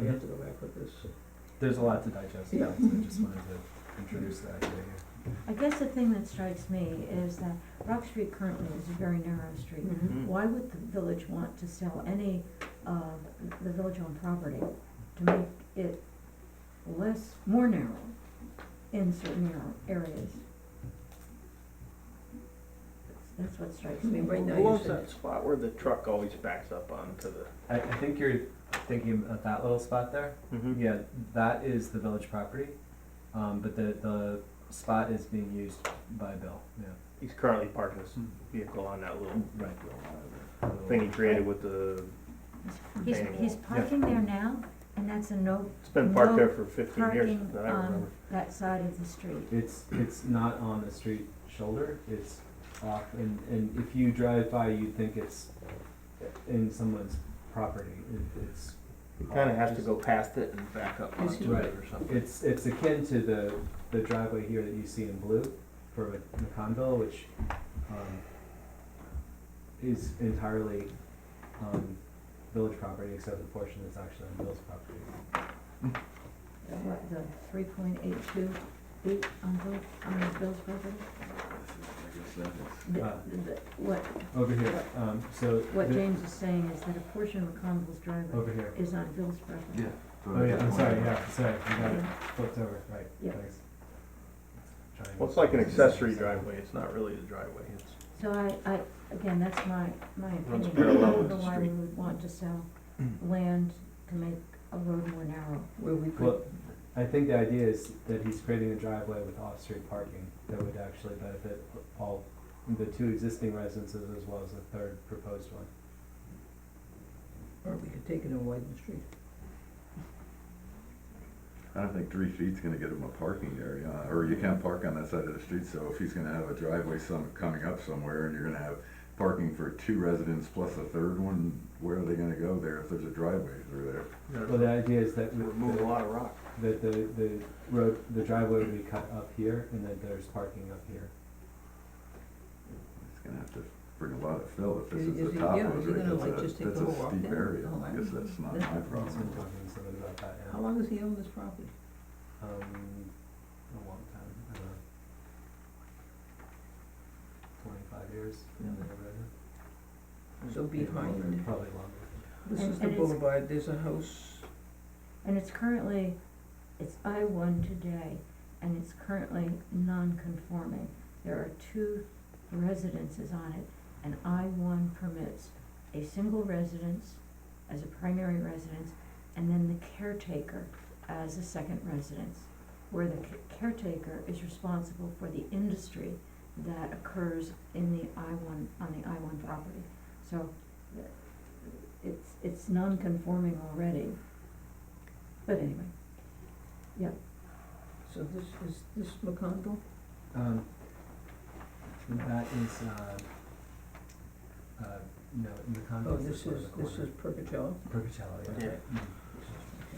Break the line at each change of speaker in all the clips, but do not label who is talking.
we have to go back with this.
There's a lot to digest,
Yeah.
so I just wanted to introduce the idea here.
I guess the thing that strikes me is that Rock Street currently is a very narrow street.
Mm-hmm.
Mhm.
Why would the village want to sell any of the village-owned property to make it less, more narrow in certain narrow areas? That's- That's what strikes
I
me.
mean, Mm-hmm. right now
Who
you
owns
said,
that spot where the truck always backs up onto the?
I, I think you're thinking of that little spot there.
Mm-hmm.
Yeah, that is the village property, um, but the, the spot is being used by Bill, yeah.
He's currently parking
Hmm.
his vehicle on that little
Right.
thing he created with the,
He's,
Retaining
he's
wall.
parking there now, and that's a no
it's been parked
No
there for fifteen years
parking
that I remember.
on that side of the street.
It's, it's not on the street shoulder, it's off, and, and if you drive by, you'd think it's in someone's property, it, it's.
He kinda has to go past it and back up
Is
onto
he-
it or something.
It's, it's akin to the, the driveway here that you see in blue for McConville, which, um, is entirely, um, village property, except the portion that's actually on Bill's property.
The what, the three point eight two feet on Bill, on Bill's property? The-
Uh.
the- What,
Over here, um, so.
what
the-
James is saying is that a portion of McConville's driveway
Over here.
is on Bill's property.
Oh, yeah, I'm sorry, yeah, sorry, I got it flipped over, right,
Yeah.
thanks. Trying-
Well, it's like an accessory driveway, it's not really a driveway, it's,
So I, I, again, that's my, my opinion,
Runs
I
parallel
don't
with
know
the
why we
street.
would want to sell land to make a road more narrow.
where we could,
Well, I think the idea is that he's creating a driveway with off-street parking that would actually benefit all, the two existing residences as well as the third proposed one.
or we could take it and widen the street.
I don't think three feet's gonna get him a parking area, uh, or you can't park on that side of the street, so if he's gonna have a driveway some, coming up somewhere, and you're gonna have parking for two residents plus a third one, where are they gonna go there if there's a driveway through there?
Well, the idea is that,
remove a
the-
lot of rock.
that the, the road, the driveway would be cut up here and that there's parking up here.
He's gonna have to bring a lot of fill if this
Is-
is
is he-
the top
yeah,
of
is he
it,
gonna, like,
that's a,
just take
that's
the whole
a
walk
steep
down?
area,
Oh, I
I guess
don't know.
that's not my
That-
problem.
He's been talking to somebody about that
How
now,
long has he owned this property?
um, a long time, I don't know. Twenty-five years,
Yeah.
something like that.
So behind,
probably longer.
this
And-
is the
and it's-
boulevard, there's a house,
And it's currently, it's I one today, and it's currently non-conforming. There are two residences on it, and I one permits a single residence as a primary residence, and then the caretaker as a second residence, where the ca- caretaker is responsible for the industry that occurs in the I one, on the I one property. So, th- it's, it's non-conforming already, but anyway,
so this is, this McConville?
Um, that is, uh, uh, no, in the
Oh,
context
this
is
is, this is Percatello?
Percocello, yeah.
Yeah.
Mm.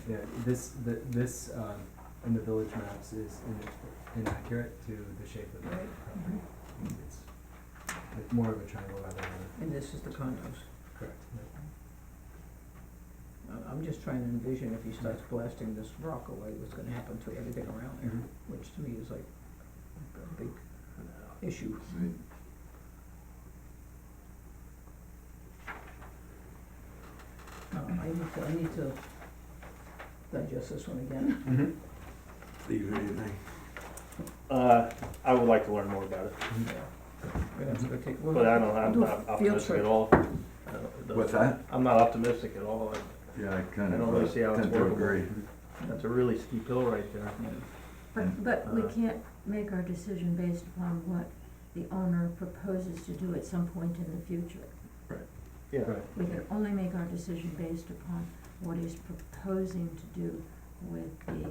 Yeah, this, the, this, um, in the village maps is in- inaccurate to the shape of the
Right.
property. It's like more of a triangle rather than a,
And this is the condos.
correct, yeah.
I- I'm just trying to envision if he starts blasting this rock away, what's gonna happen to everything around there,
Mhm.
which to me is like a big issue.
See,
Uh, I need to, I need to digest this one again.
Uh, I would like to learn more about it,
We're gonna have to go take, we'll,
but I don't, I'm
do a
not
field
optimistic
trip.
at all. I don't- the-
What's that?
I'm not optimistic at all, I-
Yeah, I kind
I
of,
don't really
uh,
see how it's
tend to
workable.
agree.
that's a really steep hill right there.
yeah.
but, but we
Uh.
can't make our decision based upon what the owner proposes to do at some point in the future.
Yeah.
Right.
We can only make our decision based upon what he's proposing to do with the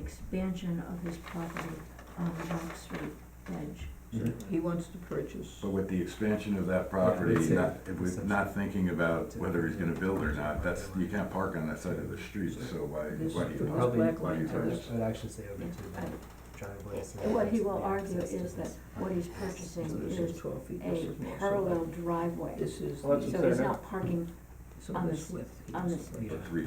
expansion of his property on the Rock Street edge.
Mm-hmm.
He wants to purchase,
But with the expansion of that property,
it's a-
not, if we're not thinking about
It's a-
whether he's gonna build or not, that's, you can't park on that side of the street, so why,
this,
why do you?
this
park?
probably-
black
why do
line
you
to
turn
this,
I would actually say over to
I-
the driveway. so
What he
that's
will
the
argue
access to
is that
this
what
property.
he's purchasing
so this
is
is twelve feet, this
a
is more,
parallel
so
driveway,
this is
Well, that's
the,
so
fair
he's
enough.
not parking
so
on
this
this-
width, he
on
wants to
this-
purchase.
Yeah.
Three